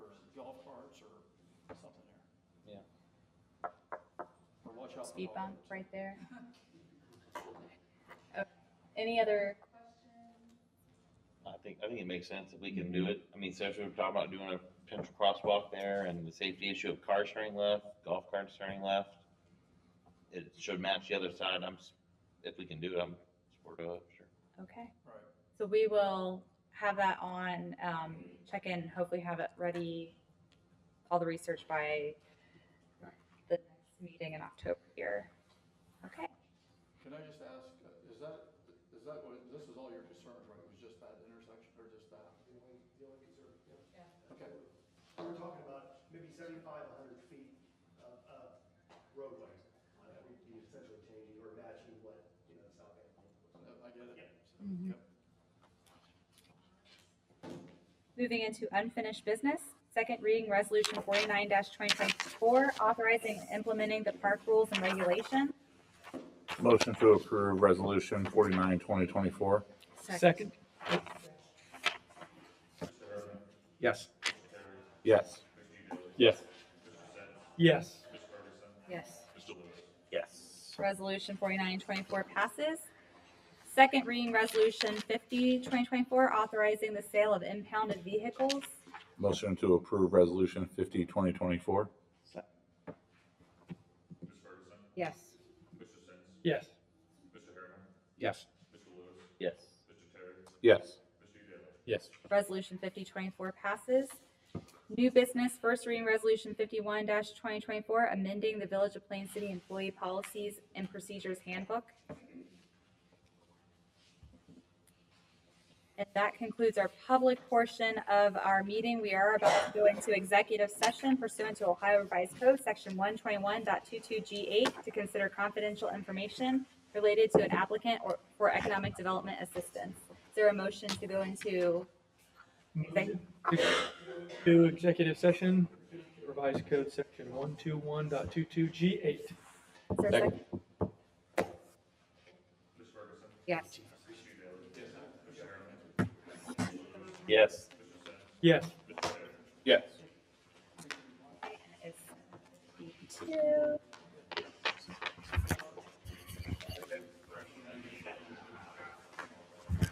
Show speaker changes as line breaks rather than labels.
starts or something there.
Yeah.
Or watch out for
speed bump
dogs.
right there. Okay. Any other
I think, I think it makes sense that we can do it. I mean, so if we're talking about doing a potential crosswalk there and the safety issue of car turning left, golf carts turning left, it should match the other side. I'm, s- if we can do it, I'm supportive of it, sure.
Okay.
Right.
So we will have that on, um, check in, hopefully have it ready, all the research by the next meeting in October here. Okay,
Can I just ask, uh, is that, is that, what- this is all your concerns, right? It was just that intersection or just that?
the only, the only concern, yeah.
Okay,
We We're talking about maybe seventy-five, hundred feet of, of roadway uh, that we'd be essentially changing or matching what, you know, South Bend.
I get it.
Mhm.
Yep.
moving into unfinished business, second reading resolution forty-nine twenty twenty-four, authorizing and implementing the park rules and regulations.
Motion to approve resolution forty-nine, twenty twenty-four.
Second?
Yes. Yes. Yes.
Yes.
Yes.
Yes.
Resolution forty-nine twenty-four passes. Second reading resolution 50 2024 authorizing the sale of impounded vehicles.
Motion to approve resolution fifty, twenty twenty-four.
Yes.
Yes.
Yes.
Yes.
Yes.
Yes.
Resolution fifty twenty-four passes. New business, first reading resolution fifty-one twenty twenty-four, amending the Village of Plain City Employee Policies and Procedures Handbook. And that concludes our public portion of our meeting. We are about to go into executive session pursuant to Ohio Revised Code, section one twenty-one G eight, to consider confidential information related to an applicant or for economic development assistance. Is there a motion to go into exec-
To executive session, revised code section one two one dot two two G eight.
Is there a second? Yes.
Yes.
Yes.
Yes.
It's two.